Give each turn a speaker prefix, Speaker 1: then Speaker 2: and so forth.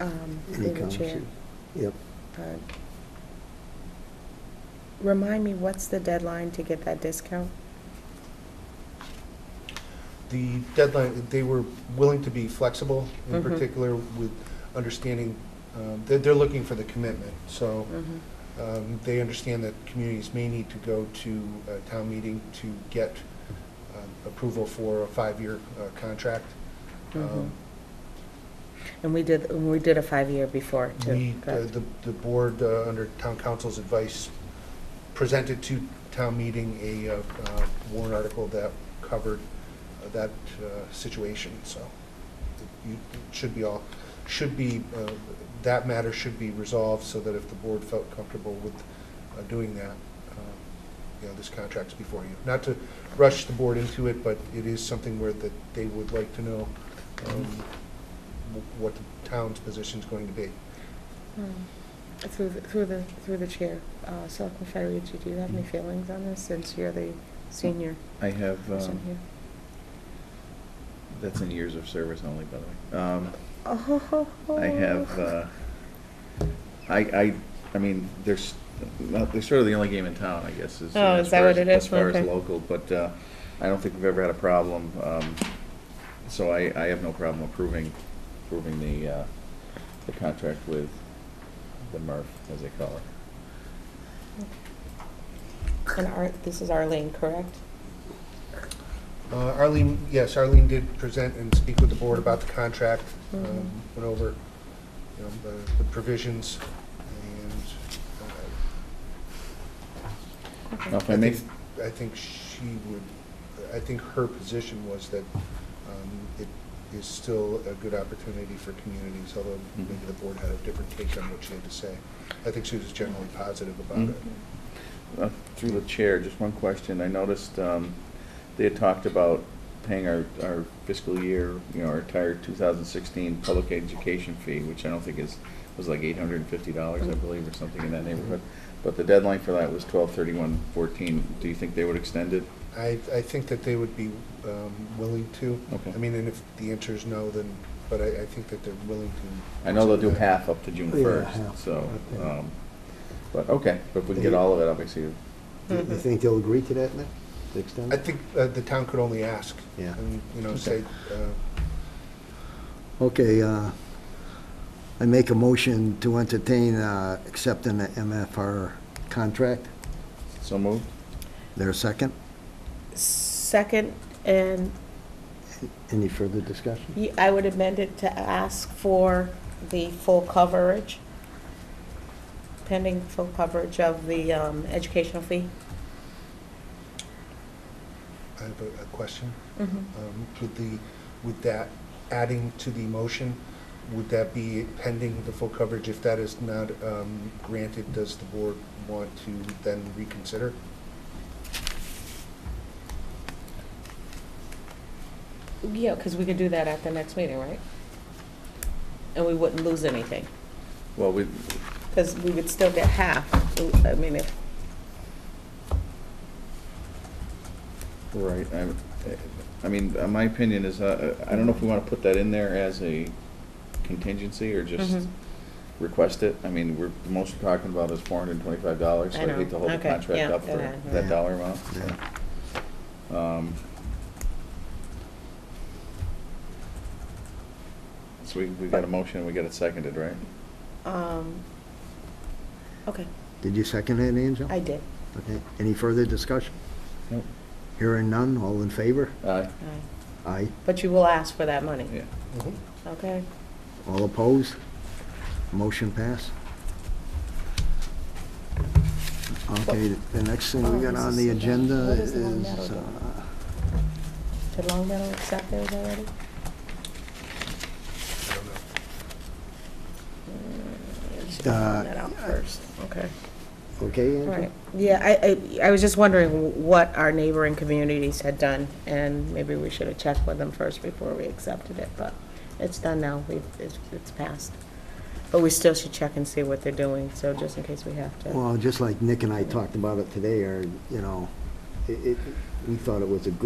Speaker 1: um,
Speaker 2: Any
Speaker 1: they were chair.
Speaker 2: comments? Yep.
Speaker 1: Uh, Remind me, what's the deadline to get that discount?
Speaker 3: The deadline, they were willing to be flexible, in
Speaker 1: Mhm.
Speaker 3: particular with understanding, um, they're, they're looking for the commitment. So
Speaker 1: Mhm.
Speaker 3: um, they understand that communities may need to go to a town meeting to get um, approval for a five-year uh, contract.
Speaker 1: Mhm.
Speaker 3: Um,
Speaker 1: And we did, and we did a five-year before,
Speaker 3: We,
Speaker 1: too,
Speaker 3: uh,
Speaker 1: correct?
Speaker 3: the, the board, uh, under town council's advice, presented to town meeting a uh, uh, warrant article that covered uh, that uh, situation, so you it should be all, should be, uh, that matter should be resolved so that if the board felt comfortable with uh, doing that, uh, you know, this contract's before you. Not to rush the board into it, but it is something where that they would like to know um, wh- what the town's position's going to be.
Speaker 1: Um, Through, the- through the, through the chair, uh, Selectman Federici, do you have any feelings on this, since you're the senior
Speaker 4: I have,
Speaker 1: person
Speaker 4: Mm. um,
Speaker 1: here?
Speaker 4: that's in years of service only, by the way. Um,
Speaker 1: Oh.
Speaker 4: I have, uh, I, I, I mean, there's, well, they're sort of the only game in town, I guess, is.
Speaker 1: Oh,
Speaker 4: as
Speaker 1: is that
Speaker 4: far
Speaker 1: what
Speaker 4: as-
Speaker 1: it is?
Speaker 4: As far as
Speaker 1: Okay.
Speaker 4: local, but, uh, I don't think we've ever had a problem, um, so I, I have no problem approving, approving the, uh, the contract with the MRF, as they call it.
Speaker 1: And Ar, this is Arlene, correct?
Speaker 3: Uh, Arlene, yes, Arlene did present and speak with the board about the contract, um,
Speaker 1: Mhm.
Speaker 3: went over, you know, the- the provisions, and uh,
Speaker 4: Now, if I
Speaker 3: I
Speaker 4: may,
Speaker 3: think, I think she would, I think her position was that um, it is still a good opportunity for communities, although
Speaker 4: Mhm.
Speaker 3: maybe the board had a different take on what she had to say. I think she was generally positive about
Speaker 1: Mm-hmm.
Speaker 3: it.
Speaker 4: Uh, Through the chair, just one question. I noticed um, they had talked about paying our our fiscal year, you know, our entire 2016 public education fee, which I don't think is, was like $850, I believe, or something in that neighborhood. But the deadline for that was 12/31/14. Do you think they would extend it?
Speaker 3: I, I think that they would be um, willing to.
Speaker 4: Okay.
Speaker 3: I mean, and if the answer is no, then, but I, I think that they're willing to.
Speaker 4: I know they'll do half up to June
Speaker 2: Yeah,
Speaker 4: 1st,
Speaker 2: half,
Speaker 4: so,
Speaker 2: okay.
Speaker 4: um, but, okay. But if we can get all of it, obviously,
Speaker 2: You you
Speaker 1: Mhm.
Speaker 2: think they'll agree to that, Nick? The extent?
Speaker 3: I think uh, the town could only ask.
Speaker 2: Yeah.
Speaker 3: And, you know, say,
Speaker 4: Okay.
Speaker 3: uh,
Speaker 2: Okay, uh, I make a motion to entertain uh, accepting the MFR contract.
Speaker 4: so moved.
Speaker 2: There a second?
Speaker 1: Second, and
Speaker 2: Any further discussion?
Speaker 1: y- I would amend it to ask for the full coverage, pending full coverage of the um, educational fee.
Speaker 3: I have a a question.
Speaker 1: Mm-hmm.
Speaker 3: Um, With the, with that adding to the motion, would that be pending the full coverage? If that is not um, granted, does the board want to then reconsider?
Speaker 1: Yeah, because we could do that at the next meeting, right? And we wouldn't lose anything,
Speaker 4: Well, we,
Speaker 1: because we would still get half, I mean, if,
Speaker 4: Right, I, I mean, uh, my opinion is, uh, I don't know if we want to put that in there as a contingency or just
Speaker 1: Mhm.
Speaker 4: request it. I mean, we're, the most we're talking about is four hundred and twenty-five dollars, so
Speaker 1: I
Speaker 4: I
Speaker 1: know.
Speaker 4: hate to hold the
Speaker 1: Okay,
Speaker 4: contract
Speaker 1: yeah,
Speaker 4: up
Speaker 1: go
Speaker 4: for
Speaker 1: ahead.
Speaker 4: that
Speaker 2: Yeah.
Speaker 4: dollar amount. so.
Speaker 2: Yeah.
Speaker 4: Um, So we, we got a motion, we got it seconded, right?
Speaker 1: um, okay,
Speaker 2: Did you second it, Angel?
Speaker 1: I did.
Speaker 2: Okay. Any further discussion?
Speaker 4: Nope.
Speaker 2: Hearing none, all in favor?
Speaker 4: Aye,
Speaker 1: All right.
Speaker 2: Aye.
Speaker 1: But you will ask for that money,
Speaker 4: yeah.
Speaker 3: Mhm.
Speaker 1: okay?
Speaker 2: All opposed? Motion pass. Okay, the next thing we got on the agenda
Speaker 1: What is the one
Speaker 2: is,
Speaker 1: that'll do?
Speaker 2: uh,
Speaker 1: Did Long Meadow accept theirs already? Mm,
Speaker 3: I don't know.
Speaker 1: we should
Speaker 2: Uh,
Speaker 1: find that out first, okay.
Speaker 2: okay, Angel?
Speaker 1: Right, yeah, I, I, I was just wondering what our neighboring communities had done, and maybe we should have checked with them first before we accepted it, but it's done now, we've, it's, it's passed. But we still should check and see what they're doing, so just in case we have to.
Speaker 2: Well, just like Nick and I talked about it today, or, you know, it, it- we thought it was a good